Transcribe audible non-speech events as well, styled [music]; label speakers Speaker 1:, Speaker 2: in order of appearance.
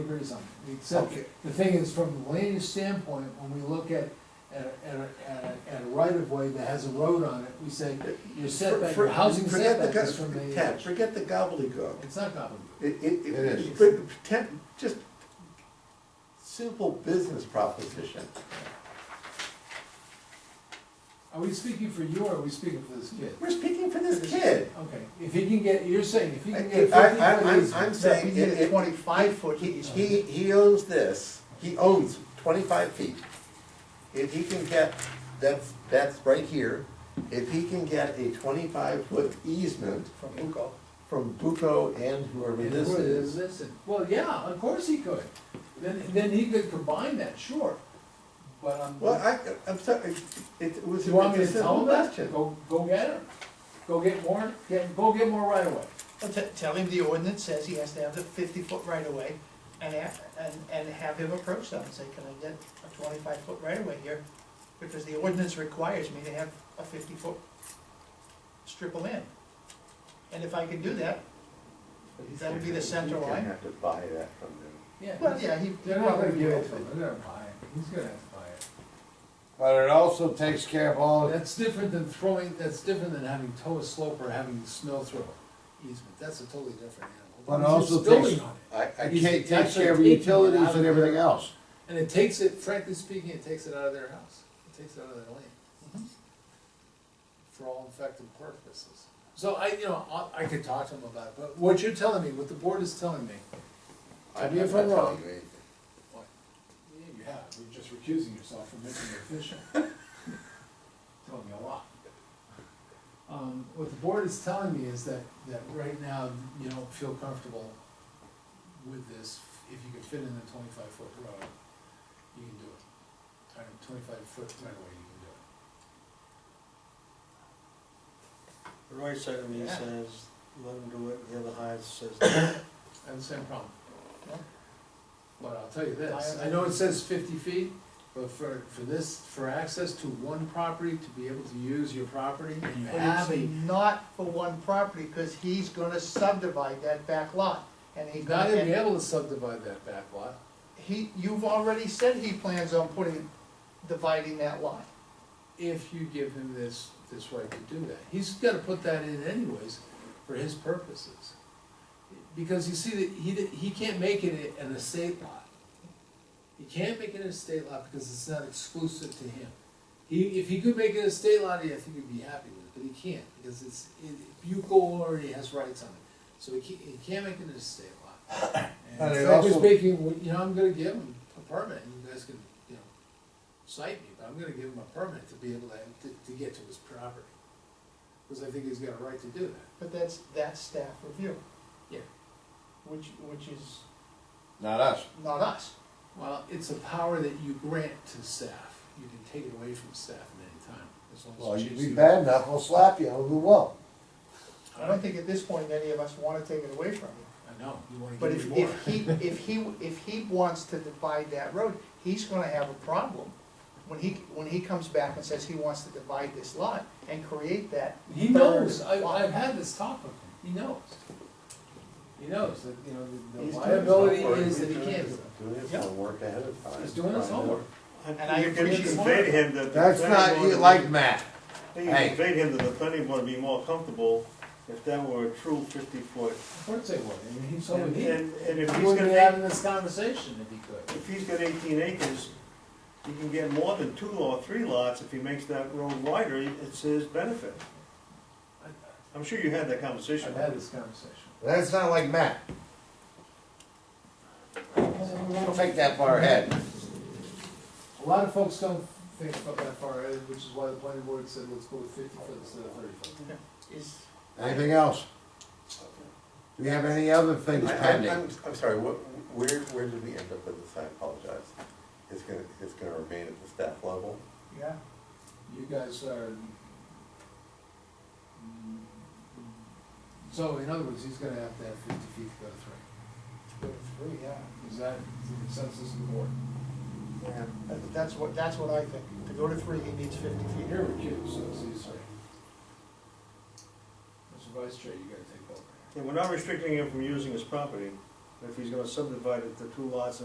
Speaker 1: agrees on. Except,
Speaker 2: Okay.
Speaker 1: the thing is, from the land use standpoint, when we look at, at, a- at, a- at, a- at a right of way that has a road on it, we say, your setback, your housing
Speaker 2: Forget the
Speaker 1: setback is
Speaker 2: go-
Speaker 1: from the.
Speaker 2: Ted, forget the gobbledygook.
Speaker 1: It's not common.
Speaker 2: It, it,
Speaker 3: It is.
Speaker 2: it, but pretend, just simple business proposition.
Speaker 1: Are we speaking for you or are we speaking for this kid?
Speaker 2: We're speaking for this kid.
Speaker 1: Okay, if he can get, you're saying, if he
Speaker 2: I,
Speaker 1: can get
Speaker 2: I,
Speaker 1: fifty
Speaker 2: I'm-
Speaker 1: foot
Speaker 2: I'm, I'm
Speaker 1: easement,
Speaker 2: saying.
Speaker 3: we need a
Speaker 2: it- it-
Speaker 3: 25 foot
Speaker 2: he-
Speaker 3: easement.
Speaker 2: He, he owns this, he owns twenty-five feet. If he can get, that's, that's right here, if he can get a twenty-five foot easement
Speaker 3: from Buco.
Speaker 2: from Buco and whoever
Speaker 1: and
Speaker 2: this
Speaker 1: where
Speaker 2: is.
Speaker 1: is this and- Well, yeah, of course he could. Then, then he could combine that, sure, but I'm.
Speaker 2: Well, I, I'm sorry, it it was.
Speaker 1: Do you want me to
Speaker 2: it's a
Speaker 1: tell him that?
Speaker 2: question.
Speaker 1: Go, go get him. Go get more, get, go get more right away.
Speaker 3: Well, te- Tell him the ordinance says he has to have the fifty foot right of way and, a- and, and have him approach them and say, can I get a twenty-five foot right of way here? Because the ordinance requires me to have a fifty foot strip of land. And if I can do that, That would be the center
Speaker 2: He's gonna
Speaker 3: line.
Speaker 2: have to buy that from them.
Speaker 1: Yeah.
Speaker 3: well, yeah, he.
Speaker 1: They're not gonna give it to him, they're gonna buy it, he's gonna have to buy it.
Speaker 4: But it also takes care of all, the-
Speaker 1: Oh, That's different than throwing, that's different than having tow a slope or having snow throw easement, that's a totally different animal.
Speaker 4: But
Speaker 1: He's
Speaker 4: also
Speaker 1: just building
Speaker 4: takes-
Speaker 1: on it.
Speaker 4: I, I
Speaker 1: He's
Speaker 4: can't take
Speaker 1: actually
Speaker 4: care of
Speaker 1: taking it out
Speaker 4: utilities
Speaker 1: of
Speaker 4: and
Speaker 1: their-
Speaker 4: everything else.
Speaker 1: And it takes it, frankly speaking, it takes it out of their house, it takes it out of their land. For all effective purposes. So I, you know, I, I could talk to him about it, but what you're telling me, what the board is telling me, Tell me
Speaker 2: I'm
Speaker 1: if I'm
Speaker 2: not
Speaker 1: wrong.
Speaker 2: telling you anything.
Speaker 1: What? Yeah, you have, you're just recusing yourself from making it [laughs] official. Telling me a lot. Um, what the board is telling me is that, that right now, you don't feel comfortable with this, if you could fit in the twenty-five foot road, you can do it. Twenty-five foot right away, you can do it.
Speaker 5: The right side of me
Speaker 1: Yeah.
Speaker 5: says, let him do it, the other half says,
Speaker 1: I have the same problem.
Speaker 3: Yeah.
Speaker 1: But I'll tell you this, I know it says fifty feet, but for, for this, for access to one property, to be able to use your property, and you
Speaker 3: But
Speaker 1: have a.
Speaker 3: it's not for one property, cause he's gonna subdivide that back lot and he's
Speaker 1: He's not
Speaker 3: gonna.
Speaker 1: gonna be able to subdivide that back lot.
Speaker 3: He, you've already said he plans on putting, dividing that lot.
Speaker 1: if you give him this, this right to do that. He's gotta put that in anyways, for his purposes. Because you see, that he, he can't make it an estate lot. He can't make it an estate lot because it's not exclusive to him. He, if he could make it an estate lot, I think he'd be happy with it, but he can't, because it's, it- Buco already has rights on it. So he can't, he can't make it an estate lot.
Speaker 4: [coughs]
Speaker 1: And
Speaker 4: And it
Speaker 1: if I was
Speaker 4: also-
Speaker 1: making, you know, I'm gonna give him a permit, and you guys can, you know, cite me, but I'm gonna give him a permit to be able to, to, to get to his property. Cause I think he's got a right to do that.
Speaker 3: But that's, that's staff review.
Speaker 1: Yeah.
Speaker 3: Which, which is
Speaker 4: Not us.
Speaker 3: not us.
Speaker 1: Well, it's a power that you grant to staff, you can take it away from staff at any time, as long
Speaker 4: Well,
Speaker 1: as
Speaker 4: you
Speaker 1: you choose.
Speaker 4: be
Speaker 1: to.
Speaker 4: bad enough, we'll slap you, and we won't.
Speaker 3: I don't think at this point any of us wanna take it away from you.
Speaker 1: I know, you wanna
Speaker 3: But
Speaker 1: give me more.
Speaker 3: if, if he, if he, if he wants to divide that road, he's gonna have a problem. When he, when he comes back and says he wants to divide this lot and create that.
Speaker 1: He
Speaker 3: third
Speaker 1: knows, I,
Speaker 3: lot.
Speaker 1: I've had this talk with him, he knows. He knows that, you know, the- the
Speaker 2: He's doing his
Speaker 1: liability
Speaker 2: homework.
Speaker 1: is
Speaker 2: He's
Speaker 1: that he
Speaker 2: doing
Speaker 1: can't
Speaker 2: his-
Speaker 1: do it.
Speaker 2: Doing his
Speaker 3: Yeah.
Speaker 2: homework ahead of time.
Speaker 1: He's doing his
Speaker 2: Trying to-
Speaker 1: homework.
Speaker 3: And I
Speaker 5: you
Speaker 3: appreciate
Speaker 5: conveyed him that. the
Speaker 4: That's
Speaker 5: planning
Speaker 4: not,
Speaker 5: board
Speaker 4: you
Speaker 5: would-
Speaker 4: like Matt.
Speaker 5: You
Speaker 4: Hey.
Speaker 5: conveyed him that the planning board would be more comfortable if that were a true fifty foot.
Speaker 1: Of course they would, I mean, he's so
Speaker 5: And,
Speaker 1: he,
Speaker 5: and and if
Speaker 1: he wouldn't
Speaker 5: he's gonna,
Speaker 1: be
Speaker 5: make-
Speaker 1: having this conversation if he could.
Speaker 5: if he's got eighteen acres, he can get more than two or three lots if he makes that road wider, it's his benefit. I'm sure you had that conversation.
Speaker 1: I've had this conversation.
Speaker 4: That's not like Matt. Don't think that far ahead.
Speaker 1: A lot of folks don't think about that far, eh, which is why the planning board said, let's go with fifty foot instead of thirty foot.
Speaker 3: Is,
Speaker 4: Anything else? Do we have any other things
Speaker 2: I- I-
Speaker 4: pending?
Speaker 2: I'm, I'm sorry, what, where, where did we end up with this? I apologize. It's gonna, it's gonna remain at the staff level.
Speaker 3: yeah,
Speaker 1: You guys are. mm, So in other words, he's gonna have to have fifty feet to go to three.
Speaker 3: go through, yeah.
Speaker 1: Is that the consensus of the board?
Speaker 3: Yeah, that- That's what, that's what I think. To go to three, he needs fifty feet.
Speaker 1: You're recused, so it's easy. Mr. Vice Chair, you gotta take over.
Speaker 5: And we're not restricting him from using his property. if he's gonna subdivide it to two lots